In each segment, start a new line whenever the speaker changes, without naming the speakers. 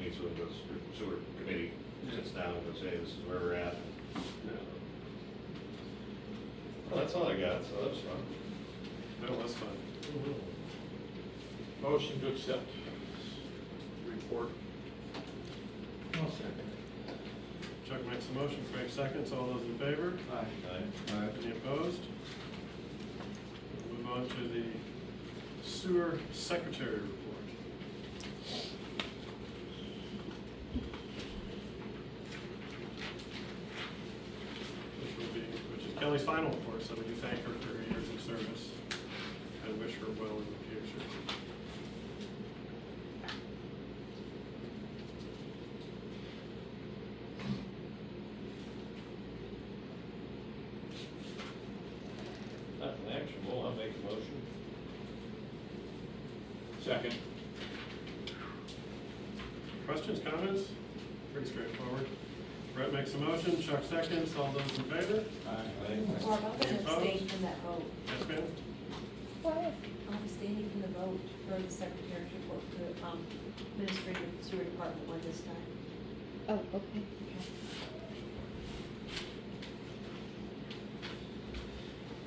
meets with the sewer committee, sits down and says, hey, this is where we're at. Well, that's all I got, so that's fun.
That was fun.
Motion to accept report.
I'll second.
Chuck makes a motion, Frank seconds, all those in favor?
Aye.
Any opposed? We'll Move on to the sewer secretary report. Which will be, which is Kelly's final report, so we do thank her for her years of service and wish her well in the future.
Nothing actionable, I'll make a motion.
Second.
Questions, comments? Pretty straightforward. Brett makes a motion, Chuck seconds, all those in favor?
Mark, I'm
Any
gonna abstain
opposed?
from that vote.
Yes, ma'am?
I'm abstaining from the vote for the secretary's report for the um, administrative sewer department one this time.
Oh, okay.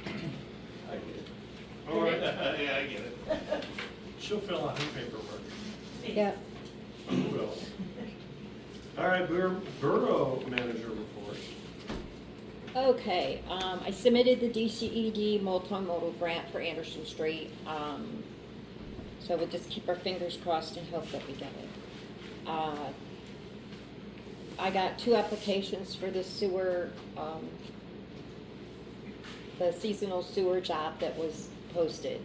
I get it.
All right,
Yeah, I get it.
she'll fill out her paperwork.
Yeah.
Who will? All right, bur- borough manager report.
Okay, um, I submitted the DCED multimodal grant for Anderson Street. Um, so we'll just keep our fingers crossed and hope that we get it. Uh, I got two applications for the sewer, um, the seasonal sewer job that was posted.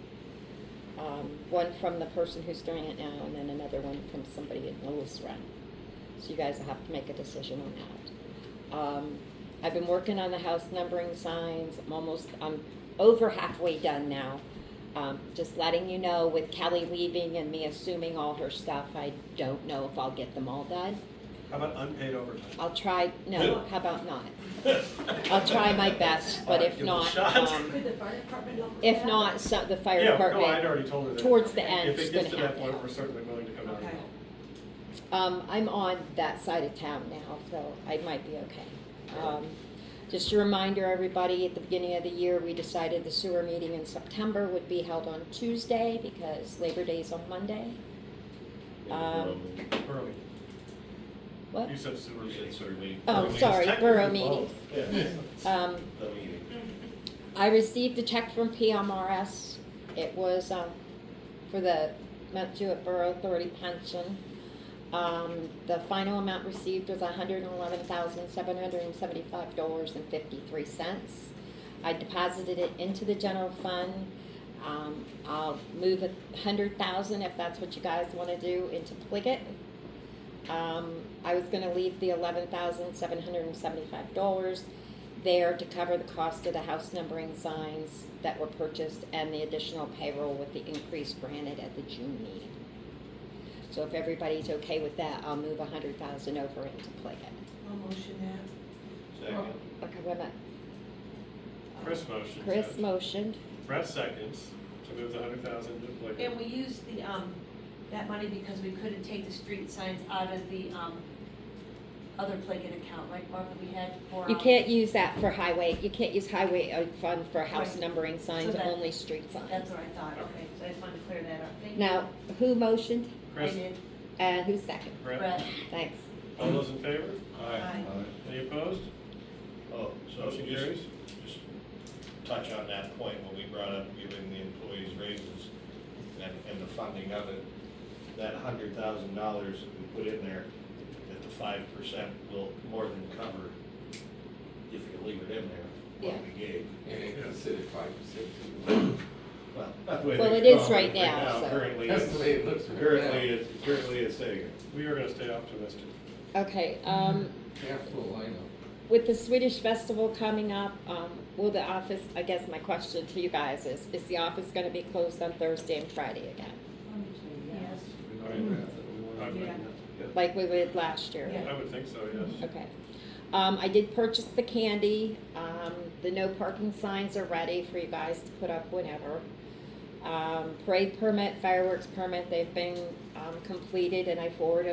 Um, one from the person who's doing it now and then another one from somebody in Lewis Run. So you guys will have to make a decision on that. Um, I've been working on the house numbering signs. I'm almost, I'm over halfway done now. Um, just letting you know with Kelly leaving and me assuming all her stuff, I don't know if I'll get them all done.
How about unpaid overtime?
I'll try, no, how about not? I'll try my best, but if
Give it a
not,
shot.
um,
Could the fire department help with
if
that?
not, so, the fire
Yeah, no, I'd
department.
already told her that.
towards the end, it's
If it gets to
gonna
that point,
happen.
we're certainly willing to come out and
Okay.
help.
Um, I'm on that side of town now, so I might be okay. Um, just a reminder, everybody, at the beginning of the year, we decided the sewer meeting in September would be held on Tuesday because Labor Day's on Monday. Um,
Early.
What?
You said sewer.
You said sewer meeting.
Oh,
Early.
sorry,
It's
borough
technically
meeting.
both.
Yeah,
Um,
the meeting.
I received a check from PMRS. It was, um, for the Mount Jewett Borough Authority pension. Um, the final amount received was hundred and eleven thousand, seven hundred and seventy-five dollars and fifty-three cents. I deposited it into the general fund. Um, I'll move a hundred thousand if that's what you guys wanna do into Pliget. Um, I was gonna leave the eleven thousand, seven hundred and seventy-five dollars there to cover the cost of the house numbering signs that were purchased and the additional payroll with the increase granted at the June meeting. So if everybody's okay with that, I'll move a hundred thousand over into Pliget.
I'll motion that.
Second.
Okay, wait a minute.
Chris motions.
Chris
it.
motioned.
Brett seconds to move the hundred thousand to Blakely.
And we used the, um, that money because we couldn't take the street signs out of the, um, other Pliget account, right, Mark, that we had for.
You
um,
can't use that for highway, you can't use highway uh, fund for house
Right.
numbering signs,
So that-
only street signs.
That's what I thought, okay, so I just wanted to clear that up. Thank you.
Now, who motioned
I
Chris,
did,
and who seconded?
Brett,
Brett,
Thanks.
all those in favor?
Aye.
Any opposed?
Oh, so
Motion
just,
carries.
just touch on that point when we brought up giving the employees raises and, and the funding of it. That hundred thousand dollars that we put in there, that the five percent will more than cover if you leave it in there,
Yeah.
what we gave.
And they consider five percent
Well, not the way they
Well, it is
call it
right now, so-
Currently,
too. That's the way
it's,
it looks right now.
currently, it's, currently it's taken.
We are gonna stay optimistic.
Okay, um,
Half full, I know.
With the Swedish festival coming up, um, will the office, I guess my question to you guys is, is the office gonna be closed on Thursday and Friday again?
yes,
I would,
Yeah.
Like we did last year?
Yeah.
I would think so, yes.
Okay. Um, I did purchase the candy. Um, the no parking signs are ready for you guys to put up whenever. Um, parade permit, fireworks permit, they've been, um, completed and I forwarded